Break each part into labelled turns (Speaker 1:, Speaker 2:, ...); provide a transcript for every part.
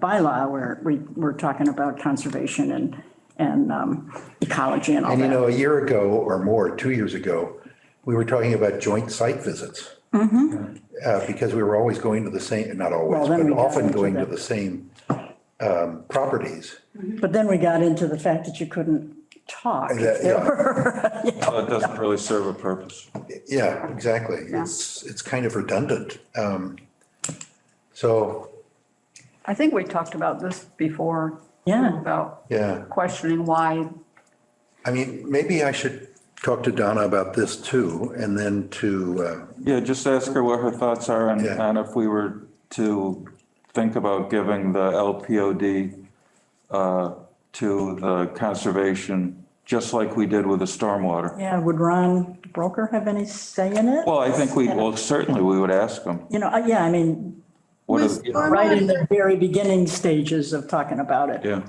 Speaker 1: bylaw where we, we're talking about conservation and, and um, ecology and all
Speaker 2: And you
Speaker 1: that.
Speaker 2: know, a year ago or more, two years ago, we were talking about joint site visits. Uh, because we were always going to the same, not always,
Speaker 1: Mm-hmm. Well, then
Speaker 2: but
Speaker 1: we got
Speaker 2: often
Speaker 1: into
Speaker 2: going to
Speaker 1: the-
Speaker 2: the same, um, properties.
Speaker 1: But then we got into the fact that you couldn't talk.
Speaker 2: That- yeah,
Speaker 3: So Oh, it doesn't really serve a purpose.
Speaker 2: Yeah, exactly. It's, it's kind of redundant. Um, so,
Speaker 4: I think we talked about this before.
Speaker 1: Yeah.
Speaker 4: About
Speaker 2: yeah.
Speaker 4: questioning why,
Speaker 2: I mean, maybe I should talk to Donna about this too, and then to, uh,
Speaker 3: Yeah, just ask her what her thoughts are and,
Speaker 2: Yeah.
Speaker 3: and if we were to think about giving the LPOD uh, to the conservation, just like we did with the stormwater.
Speaker 1: Yeah, would Ron Broker have any say in it?
Speaker 3: Well, I think we, well, certainly we would ask them.
Speaker 1: You know, uh, yeah, I mean,
Speaker 3: What
Speaker 5: Was
Speaker 3: is,
Speaker 5: storm-
Speaker 1: right in the very beginning stages of talking about it.
Speaker 3: yeah,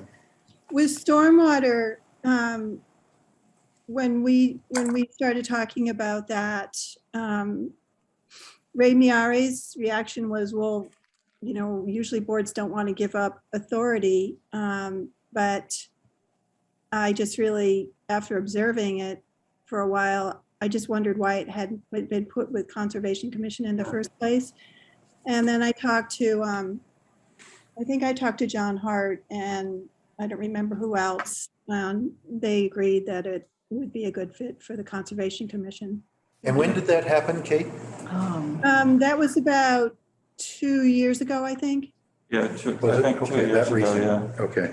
Speaker 5: With stormwater, um, when we, when we started talking about that, um, Ray Miari's reaction was, well, you know, usually boards don't want to give up authority, um, but I just really, after observing it for a while, I just wondered why it hadn't been put with Conservation Commission in the first place. And then I talked to, um, I think I talked to John Hart and I don't remember who else. Um, they agreed that it would be a good fit for the Conservation Commission.
Speaker 2: and when did that happen, Kate?
Speaker 1: Um,
Speaker 5: Um, that was about two years ago, I think.
Speaker 3: yeah, two-
Speaker 2: Was
Speaker 3: I
Speaker 2: it-
Speaker 3: think two
Speaker 2: okay,
Speaker 3: years
Speaker 2: that
Speaker 3: ago,
Speaker 2: recent?
Speaker 3: yeah.
Speaker 2: Okay.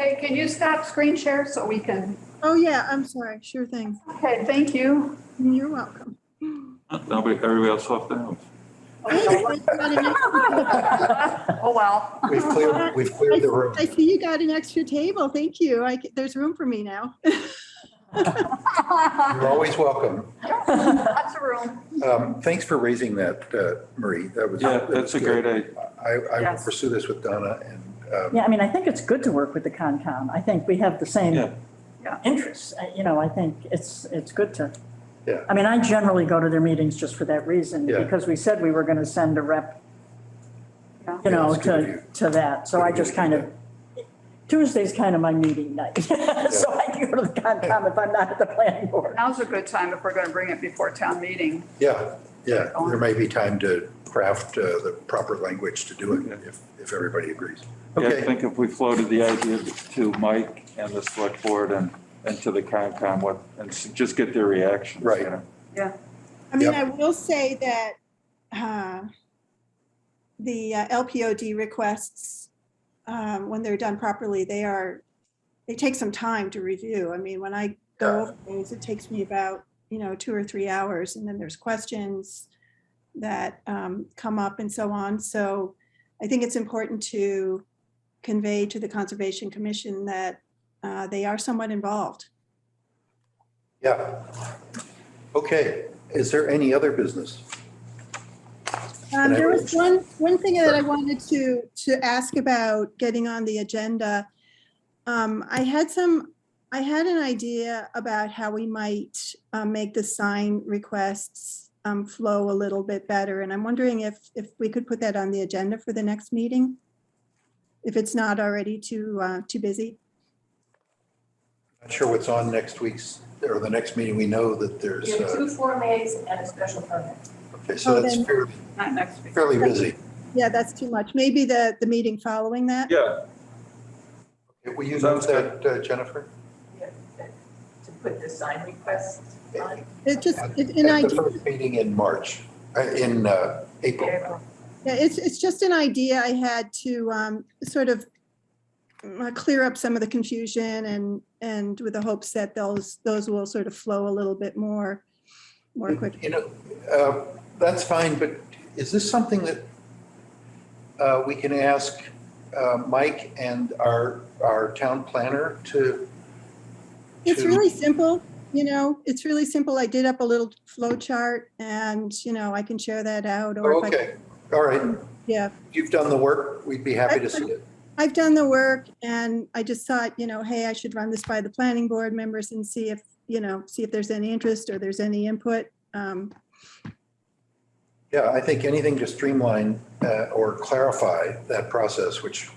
Speaker 6: Hey, can you stop screen share so we can,
Speaker 5: Oh, yeah, I'm sorry. Sure thing.
Speaker 6: okay, thank you.
Speaker 5: You're welcome.
Speaker 3: Nobody, everybody else left the house.
Speaker 5: I
Speaker 6: Oh, well.
Speaker 2: We've cleared, we've cleared the room.
Speaker 5: see you got an extra table. Thank you. I, c- there's room for me now.
Speaker 2: You're always welcome.
Speaker 6: Lots of room.
Speaker 2: Um, Thanks for raising that, uh, Marie. That was.
Speaker 3: Yeah,
Speaker 2: that was
Speaker 3: that's a
Speaker 2: good.
Speaker 3: great idea.
Speaker 2: I, I will
Speaker 4: Yes.
Speaker 2: pursue this with Donna and, um,
Speaker 1: Yeah, I mean, I think it's good to work with the Concom. I think we have the
Speaker 3: Yeah.
Speaker 1: same
Speaker 4: Yeah.
Speaker 1: interests. I- You know, I think it's, it's good to.
Speaker 2: Yeah.
Speaker 1: I mean, I generally go to their meetings just for that reason,
Speaker 2: Yeah.
Speaker 1: because we said we were going to send a rep,
Speaker 4: Yeah.
Speaker 1: you know,
Speaker 2: Yeah, it's good of
Speaker 1: to,
Speaker 2: you.
Speaker 1: to that. So
Speaker 2: Good
Speaker 1: I
Speaker 2: of you
Speaker 1: just
Speaker 2: to
Speaker 1: kind
Speaker 2: do
Speaker 1: of, Tuesday's kind of my meeting night. So I can go to the Concom if I'm not at the planning board.
Speaker 6: Now's a good time if we're going to bring it before town meeting.
Speaker 2: yeah, yeah, there may be time to craft uh, the proper language to do it if, if everybody agrees.
Speaker 3: Yeah, I
Speaker 2: Okay,
Speaker 3: think if we floated the idea to Mike and the select board and, and to the Concom, what, and s- just get their reactions. you
Speaker 2: Right.
Speaker 3: know?
Speaker 5: I mean,
Speaker 2: Yep.
Speaker 5: I will say that uh, the uh, LPOD requests, um, when they're done properly, they are, they take some time to review. I mean, when I go over those, it takes me about, you know, two or three hours, and then there's questions that um, come up and so on. So I think it's important to convey to the Conservation Commission that uh, they are somewhat involved.
Speaker 2: yeah. Okay, is there any other business?
Speaker 5: Um,
Speaker 2: And I
Speaker 5: there
Speaker 2: will-
Speaker 5: was one, one thing that I wanted to, to ask about getting on the agenda. Um, I had some, I had an idea about how we might, um, make the sign requests, um, flow a little bit better. And I'm wondering if, if we could put that on the agenda for the next meeting? If it's not already too, uh, too busy?
Speaker 2: Not sure what's on next week's, or the next meeting. We know that there's,
Speaker 7: You have
Speaker 2: uh,
Speaker 7: two Form As and a special permit.
Speaker 2: okay, so
Speaker 5: Oh,
Speaker 2: that's
Speaker 5: then-
Speaker 2: fairly,
Speaker 6: Not next week.
Speaker 2: fairly busy.
Speaker 5: Yeah, that's too much. Maybe the, the meeting following that?
Speaker 3: Yeah,
Speaker 2: Will you note
Speaker 3: Sounds
Speaker 2: that, uh, Jennifer?
Speaker 7: To put the sign request on.
Speaker 5: It just, it's an
Speaker 2: At
Speaker 5: idea.
Speaker 2: the first meeting in March, uh, in uh, April.
Speaker 5: Yeah, it's, it's just an idea I had to um, sort of uh, clear up some of the confusion and, and with the hopes that those, those will sort of flow a little bit more, more quickly.
Speaker 2: You know, uh, that's fine, but is this something that uh, we can ask uh, Mike and our, our town planner to?
Speaker 5: It's
Speaker 2: to-
Speaker 5: really simple, you know, it's really simple. I did up a little flow chart and, you know, I can share that out or
Speaker 2: Oh,
Speaker 5: if I,
Speaker 2: Okay, all right.
Speaker 5: yeah.
Speaker 2: You've done the work. We'd be happy to see it.
Speaker 5: I've done the work and I just thought, you know, hey, I should run this by the planning board members and see if, you know, see if there's any interest or there's any input. Um,
Speaker 2: Yeah, I think anything to streamline uh, or clarify that process, which